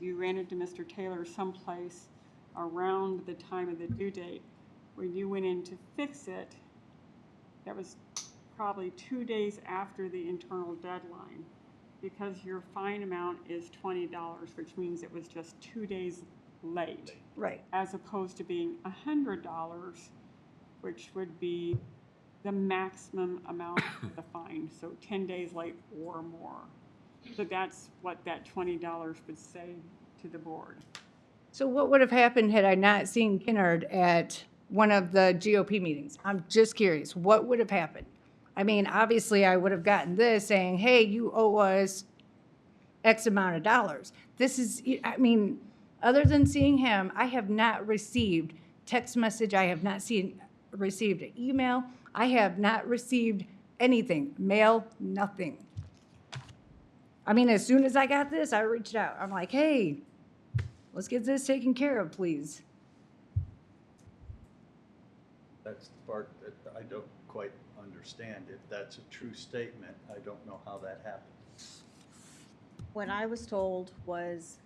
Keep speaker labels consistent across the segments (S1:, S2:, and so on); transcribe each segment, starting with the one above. S1: you ran into Mr. Taylor someplace around the time of the due date, when you went in to fix it, that was probably two days after the internal deadline, because your fine amount is twenty dollars, which means it was just two days late,
S2: Right,
S1: as opposed to being a hundred dollars, which would be the maximum amount of the fine, so ten days late or more. So that's what that twenty dollars would say to the board.
S2: so what would have happened had I not seen Kinnard at one of the GOP meetings? I'm just curious, what would have happened? I mean, obviously, I would have gotten this saying, hey, you owe us X amount of dollars. This is, I mean, other than seeing him, I have not received text message, I have not seen, received an email, I have not received anything, mail, nothing. I mean, as soon as I got this, I reached out. I'm like, hey, let's get this taken care of, please.
S3: That's the part that I don't quite understand. If that's a true statement, I don't know how that happened.
S4: What I was told was,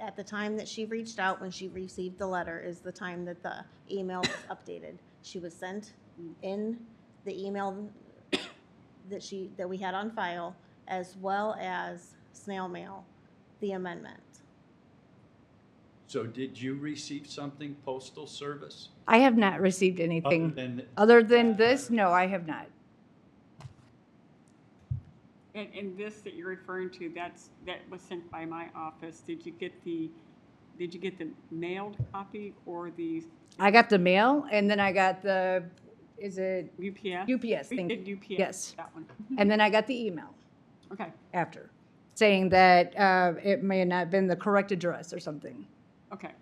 S4: at the time that she reached out, when she received the letter, is the time that the email was updated. She was sent in the email that she, that we had on file, as well as snail mail, the amendment.
S3: So did you receive something postal service?
S2: I have not received
S3: Other
S2: anything.
S3: than,
S2: Other than this, no, I have not.
S1: And, and this that you're referring to, that's, that was sent by my office. Did you get the, did you get the mailed copy or the
S2: I got the mail and then I got the, is it,
S1: UPS?
S2: UPS,
S1: We
S2: thank
S1: did
S2: you.
S1: UPS.
S2: Yes.
S1: That one.
S2: and then I got the email
S1: Okay,
S2: after saying that uh, it may not have been the correct address or something.
S1: okay.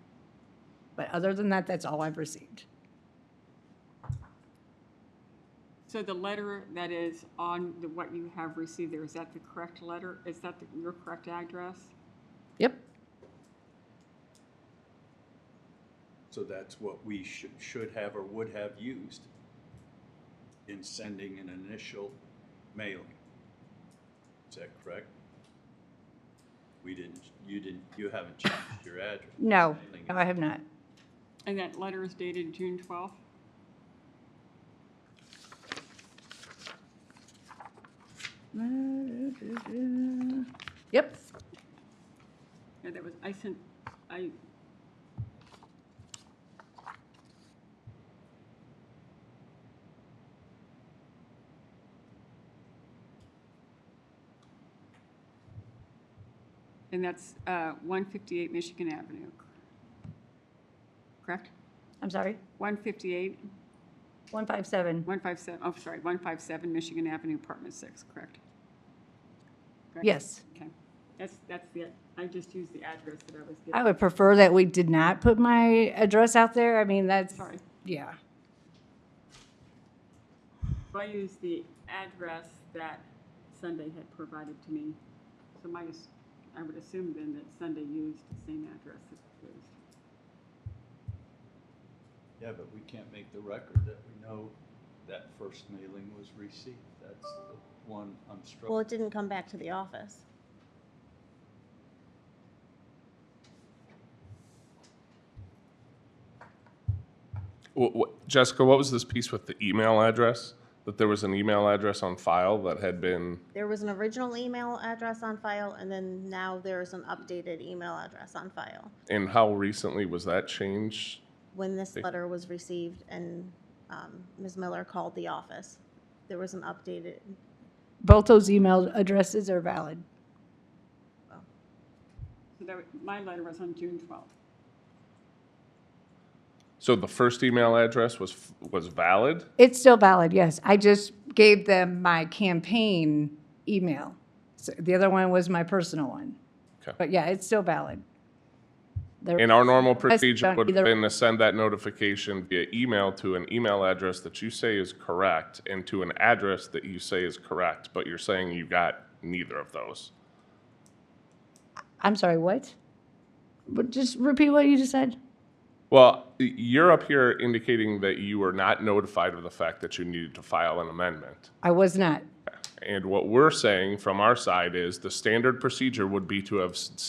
S2: But other than that, that's all I've received.
S1: So the letter that is on the, what you have received there, is that the correct letter? Is that the- your correct address?
S2: Yep.
S3: so that's what we should, should have or would have used in sending an initial mailing. Is that correct? We didn't, you didn't, you haven't changed your address.
S2: No, no, I have not.
S1: And that letter is dated June twelfth?
S2: Yep.
S1: Yeah, that was, I sent, I. And that's uh, 158 Michigan Avenue, correct?
S2: I'm sorry.
S1: 158,
S2: 157.
S1: 157, oh, sorry, 157 Michigan Avenue, Apartment 6, correct? Correct?
S2: Yes.
S1: Okay, that's, that's the, I just used the address that I was given.
S2: I would prefer that we did not put my address out there. I mean, that's,
S1: Sorry.
S2: yeah.
S1: I used the address that Sunday had provided to me. So my, ass- I would assume then that Sunday used the same address that was used.
S3: Yeah, but we can't make the record that we know that first mailing was received. That's the one I'm struggling.
S4: Well, it didn't come back to the office.
S5: Wh- wh- Jessica, what was this piece with the email address? That there was an email address on file that had been,
S4: There was an original email address on file, and then now there's an updated email address on file.
S5: and how recently was that changed?
S4: when this letter was received and um, Ms. Miller called the office, there was an updated,
S2: Both those email addresses are valid.
S1: So that, wa- my letter was on June twelfth.
S5: So the first email address was, f- was valid?
S2: It's still valid, yes. I just gave them my campaign email. So The other one was my personal one.
S5: Okay.
S2: But yeah, it's still valid. There-
S5: And our normal procedure
S2: don't
S5: would have
S2: either-
S5: been to send that notification via email to an email address that you say is correct and to an address that you say is correct, but you're saying you got neither of those.
S2: I'm sorry, what? But just repeat what you just said.
S5: Well, y- you're up here indicating that you were not notified of the fact that you needed to file an amendment.
S2: I was not.
S5: And what we're saying from our side is the standard procedure would be to have s-